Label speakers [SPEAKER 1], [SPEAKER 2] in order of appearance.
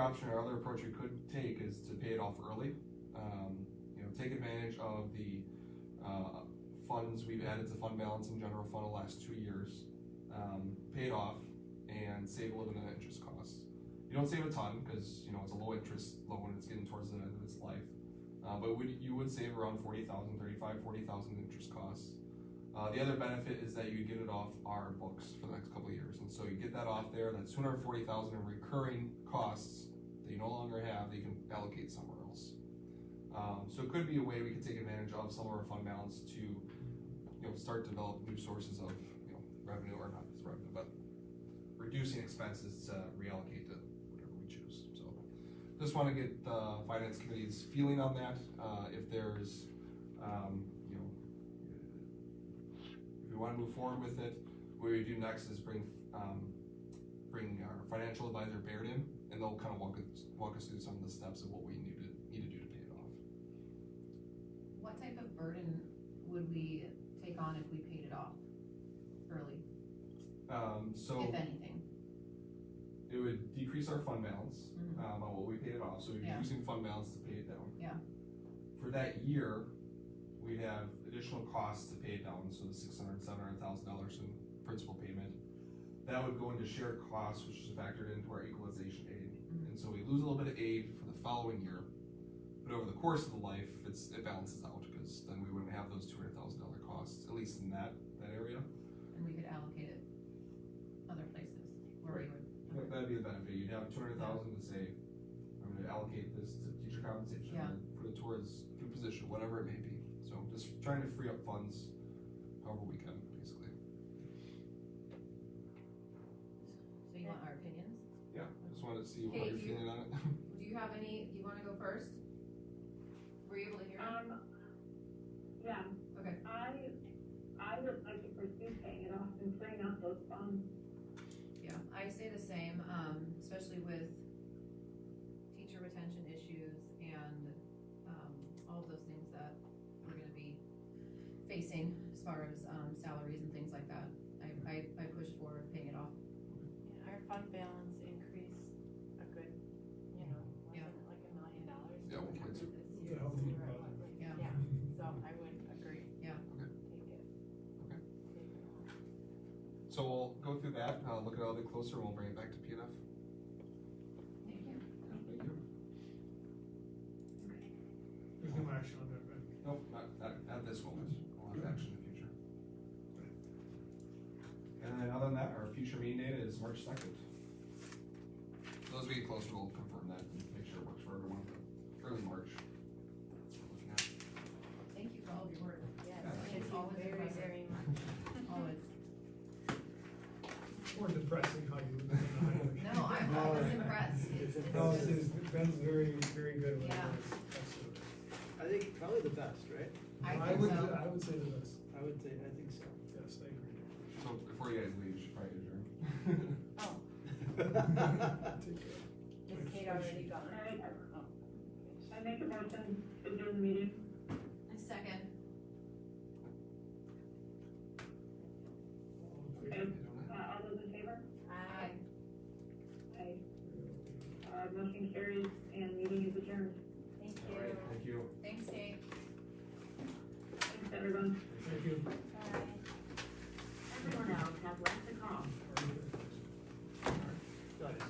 [SPEAKER 1] option or other approach you could take is to pay it off early. Um, you know, take advantage of the, uh, funds we've added to fund balance and general fund the last two years. Um, pay it off and save a little bit of interest costs. You don't save a ton, cause you know, it's a low interest loan, it's getting towards the end of its life. Uh, but would, you would save around forty thousand, thirty-five, forty thousand in interest costs. Uh, the other benefit is that you get it off our books for the next couple of years, and so you get that off there. That's two hundred forty thousand in recurring costs that you no longer have. That you can allocate somewhere else. Um, so it could be a way we could take advantage of some of our fund balance to, you know, start develop new sources of you know revenue or not just revenue, but reducing expenses to reallocate to whatever we choose. So just want to get the finance committee's feeling on that. Uh, if there's, um, you know, if we want to move forward with it, what we do next is bring, um, bring our financial advisor Baird in, and they'll kind of walk us, walk us through some of the steps of what we need to, need to do to pay it off.
[SPEAKER 2] What type of burden would we take on if we paid it off early,
[SPEAKER 1] Um, so
[SPEAKER 2] if anything?
[SPEAKER 1] it would decrease our fund balance,
[SPEAKER 2] Mhm.
[SPEAKER 1] um, on what we paid it off, so we'd be
[SPEAKER 2] Yeah.
[SPEAKER 1] using fund balance to pay it down.
[SPEAKER 2] Yeah.
[SPEAKER 1] For that year, we'd have additional costs to pay it down, so the six hundred, seven hundred thousand dollars in principal payment. That would go into shared costs, which is factored into our equalization aid,
[SPEAKER 2] Mhm.
[SPEAKER 1] and so we lose a little bit of aid for the following year. But over the course of the life, it's, it balances out, cause then we wouldn't have those two hundred thousand dollar costs, at least in that, that area.
[SPEAKER 2] And we could allocate it other places where we
[SPEAKER 1] That-
[SPEAKER 2] would.
[SPEAKER 1] That'd be the benefit, you'd have two hundred thousand to say, I'm gonna allocate this to teacher compensation,
[SPEAKER 2] Yeah.
[SPEAKER 1] and put it towards new position, whatever it may be. So just trying to free up funds however we can, basically.
[SPEAKER 2] So you want our opinions?
[SPEAKER 1] Yeah. Just wanted to see how
[SPEAKER 2] Hey,
[SPEAKER 1] you're
[SPEAKER 2] you-
[SPEAKER 1] feeling on it.
[SPEAKER 2] Do you have any, do you wanna go first? Were you able to hear?
[SPEAKER 3] Um, yeah,
[SPEAKER 2] Okay,
[SPEAKER 3] I, I would like to pursue paying it off and clearing out those funds.
[SPEAKER 2] yeah, I say the same, um, especially with teacher retention issues and, um, all of those things that we're gonna be facing as far as, um, salaries and things like that. I, I, I push for paying it off
[SPEAKER 4] Yeah, our fund balance increased a good, you know,
[SPEAKER 2] Yeah.
[SPEAKER 4] wasn't it like a million dollars?
[SPEAKER 1] Yeah,
[SPEAKER 4] when we
[SPEAKER 1] 1.2.
[SPEAKER 4] did this
[SPEAKER 5] Yeah,
[SPEAKER 4] year?
[SPEAKER 5] I'll
[SPEAKER 4] So we
[SPEAKER 5] think
[SPEAKER 4] were at
[SPEAKER 5] about it.
[SPEAKER 4] 1.2.
[SPEAKER 2] Yeah.
[SPEAKER 4] Yeah, so I would agree.
[SPEAKER 2] Yeah.
[SPEAKER 1] Okay.
[SPEAKER 4] Take it.
[SPEAKER 1] Okay.
[SPEAKER 4] Take it off.
[SPEAKER 1] So we'll go through that, uh, look at it a little bit closer, and we'll bring it back to P and F.
[SPEAKER 2] Thank you.
[SPEAKER 1] Thank you.
[SPEAKER 5] There's no action on that, right?
[SPEAKER 1] Nope, not, not, not this moment, we'll have action in the future. And then other than that, our future meeting date is March second. Those we get closer, we'll confirm that and make sure it works for everyone, but early March. Looking at-
[SPEAKER 2] Thank you for all of your work,
[SPEAKER 4] Yes,
[SPEAKER 1] Yeah.
[SPEAKER 4] thank
[SPEAKER 2] It's
[SPEAKER 4] you
[SPEAKER 2] always
[SPEAKER 4] very,
[SPEAKER 2] impressive.
[SPEAKER 4] very much.
[SPEAKER 2] always.
[SPEAKER 5] More depressing how you.
[SPEAKER 2] No, I'm
[SPEAKER 5] All
[SPEAKER 2] always
[SPEAKER 5] right.
[SPEAKER 2] impressed. It's, it's
[SPEAKER 5] No, it's,
[SPEAKER 2] good.
[SPEAKER 5] it's, Ben's very, very good with
[SPEAKER 2] Yeah.
[SPEAKER 5] this. Absolutely.
[SPEAKER 6] I think probably the best, right?
[SPEAKER 2] I think
[SPEAKER 5] would,
[SPEAKER 2] so.
[SPEAKER 5] I would say the best,
[SPEAKER 6] I would say, I think so.
[SPEAKER 5] yes, I agree.
[SPEAKER 1] So before you guys leave, you should probably adjourn.
[SPEAKER 4] Oh,
[SPEAKER 5] Take care.
[SPEAKER 4] is Kate already gone?
[SPEAKER 3] I,
[SPEAKER 4] Oh.
[SPEAKER 3] I make a motion to adjourn the meeting.
[SPEAKER 2] A second.
[SPEAKER 3] And, uh, all those in favor?
[SPEAKER 4] Aye.
[SPEAKER 3] Aye. Uh, motion carries and meeting is adjourned.
[SPEAKER 4] Thank
[SPEAKER 1] All right,
[SPEAKER 4] you.
[SPEAKER 1] thank you.
[SPEAKER 2] Thanks, Kate.
[SPEAKER 3] Thanks, everyone.
[SPEAKER 5] Thank you.
[SPEAKER 4] Bye.
[SPEAKER 3] Everyone else has left the call.
[SPEAKER 6] Nice.